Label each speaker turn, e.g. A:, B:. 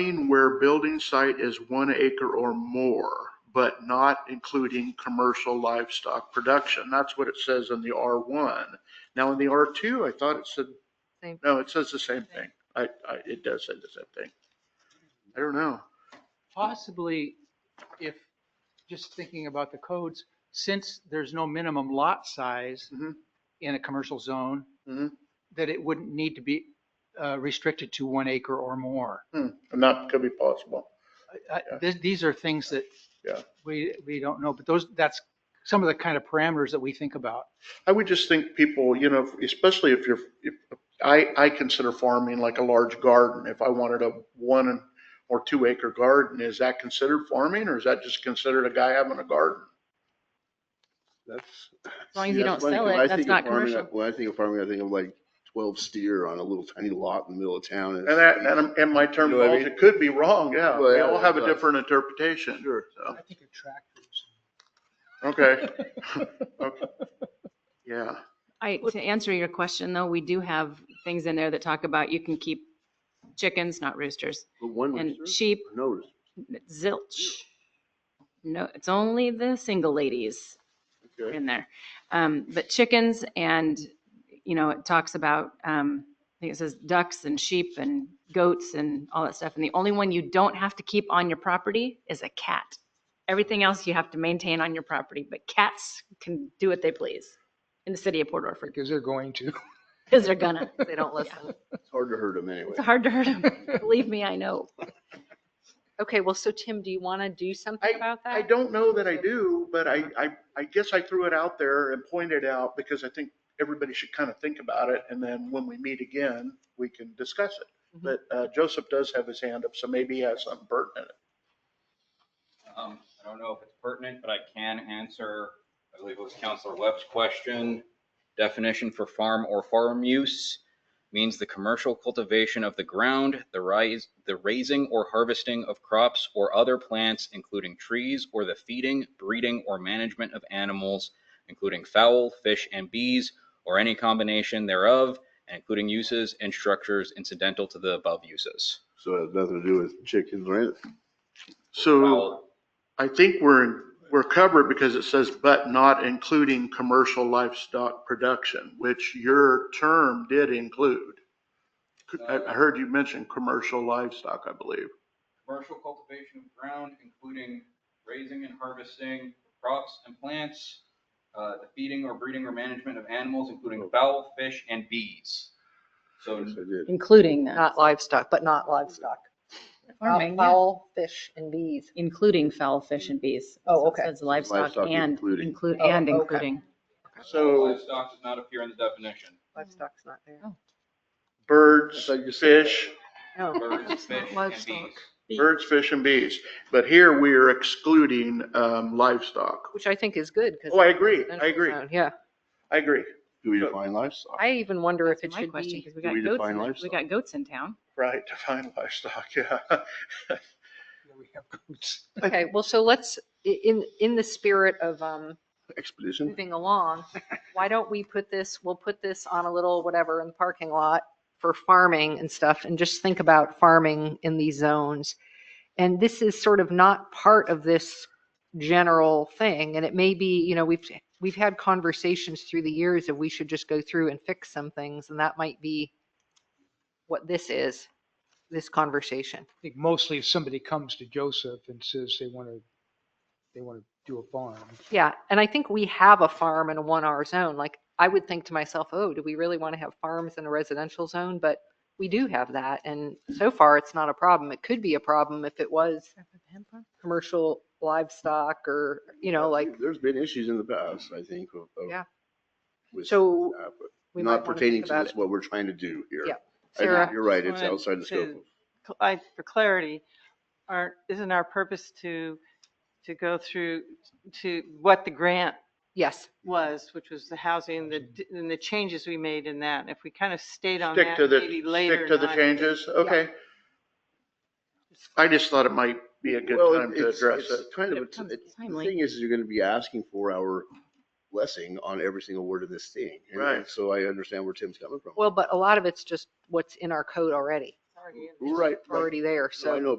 A: zoning where building site is one acre or more, but not including commercial livestock production. That's what it says in the R1. Now in the R2, I thought it said,
B: Same.
A: no, it says the same thing. I, I, it does say the same thing. I don't know.
C: Possibly if, just thinking about the codes, since there's no minimum lot size
A: Mhm.
C: in a commercial zone,
A: Mhm.
C: that it wouldn't need to be uh, restricted to one acre or more.
A: Hmm, And that could be possible.
C: I- I-
A: Yeah.
C: this- These are things that
A: Yeah.
C: we, we don't know, but those, that's some of the kind of parameters that we think about.
A: I would just think people, you know, especially if you're, if, I, I consider farming like a large garden. If I wanted a one or two acre garden, is that considered farming or is that just considered a guy having a garden?
D: That's.
B: As long as you don't
D: that's
B: sell
D: funny, 'cause I
B: it, that's
D: think of
B: not
D: farming,
B: commercial.
D: I- When I think of farming, I think of like twelve steer on a little tiny lot in the middle of town.
A: And that, and, I'm- and my terminology could be wrong, yeah.
D: Well, uh,
A: We
D: yeah,
A: all have a
D: but-
A: different interpretation. Sure.
C: I think of tractors.
A: Okay. Okay. Yeah,
B: I, to answer your question though, we do have things in there that talk about you can keep chickens, not roosters,
D: But one
B: and
D: rooster?
B: sheep,
D: No rooster.
B: zilch. No, it's only the single ladies
D: Okay.
B: in there. Um, but chickens and, you know, it talks about, um, I think it says ducks and sheep and goats and all that stuff. And the only one you don't have to keep on your property is a cat. Everything else you have to maintain on your property, but cats can do what they please in the city of Port Orford
C: Because they're going to.
B: because they're gonna.
E: They don't listen.
D: It's hard to hurt them anyway.
B: It's hard to hurt them. Believe me, I know.
E: Okay, well, so Tim, do you want to do something about that?
A: I don't know that I do, but I, I, I guess I threw it out there and pointed out because I think everybody should kind of think about it. And then when we meet again, we can discuss it.
D: Mm-hmm.
A: But uh, Joseph does have his hand up, so maybe he has something pertinent.
F: Um, I don't know if it's pertinent, but I can answer, I believe it was Counselor Webb's question. Definition for farm or farm use means the commercial cultivation of the ground, the rise, the raising or harvesting of crops or other plants, including trees, or the feeding, breeding, or management of animals, including fowl, fish, and bees, or any combination thereof, and including uses and structures incidental to the above uses.
D: So it has nothing to do with chickens or anything.
A: So
F: Fowl,
A: I think we're, we're covered because it says, but not including commercial livestock production, which your term did include. I, I heard you mention commercial livestock, I believe.
F: commercial cultivation of ground, including raising and harvesting crops and plants, uh, the feeding or breeding or management of animals, including fowl, fish, and bees. So
D: Yes, I did.
B: Including
E: Not livestock, but not livestock. Uh,
B: Farming, yeah.
E: Fowl, fish, and bees.
B: Including fowl, fish and bees.
E: Oh,
B: So it
E: okay.
B: Says livestock
D: Livestock
B: and
D: including.
B: include,
E: Oh,
B: and
E: okay.
B: including.
A: So
F: livestock does not appear in the definition.
E: Livestock's not there.
B: Oh.
A: birds,
D: I thought you said-
A: fish,
E: Oh.
F: Birds, fish, and
E: livestock.
F: bees.
A: birds, fish and bees. But here we are excluding um, livestock.
E: Which I think is good because.
A: Oh, I agree. I agree.
E: Yeah.
A: I agree.
D: Do we define livestock?
E: I even wonder if it
B: That's my
E: should
B: question,
E: be,
B: because we
D: Do
B: got
D: we
B: goats,
D: define
B: in- we
D: livestock?
B: got goats in town.
A: Right, define livestock, yeah.
C: We have goats.
E: okay, well, so let's, i- in, in the spirit of, um,
D: Expedition?
E: moving along, why don't we put this, we'll put this on a little whatever in the parking lot for farming and stuff, and just think about farming in these zones. And this is sort of not part of this general thing, and it may be, you know, we've, we've had conversations through the years of we should just go through and fix some things, and that might be what this is, this conversation.
C: I think mostly if somebody comes to Joseph and says they want to, they want to do a farm.
E: Yeah, and I think we have a farm in a one hour zone. Like, I would think to myself, oh, do we really want to have farms in a residential zone? But we do have that, and so far, it's not a problem. It could be a problem Mm-hmm. if it was commercial livestock or, you know, like,
D: There's been issues in the past, I think, of. of-
E: Yeah.
D: with
E: So
D: that, but
E: we might
D: Not
E: wanna
D: pertaining
E: think
D: to
E: about
D: this,
E: it.
D: what we're trying to do here.
E: Yeah.
D: I think
E: Sarah,
D: You're right.
G: just
D: It's
G: wanted
D: outside the scope.
G: to- cl- I, for clarity, are, isn't our purpose to, to go through to what the grant
E: yes,
G: was, which was the housing, the, d- and the changes we made in that? If we kind of stayed on
A: Stick
G: that
A: to the,
G: maybe later.
A: stick to the
G: not-
A: changes, okay. I just thought it might be a good
D: Well,
A: time to
D: it's-
A: address
D: it's
A: it.
D: Kind of,
B: It
D: it's-
B: comes
D: it's- the
B: timely.
D: thing is, you're gonna be asking for our blessing on every single word of this thing. And-
A: Right.
D: and So I understand where Tim's coming from.
E: well, but a lot of it's just what's in our code already.
H: already in.
E: Right. right.
G: already there, so.
E: No, I know,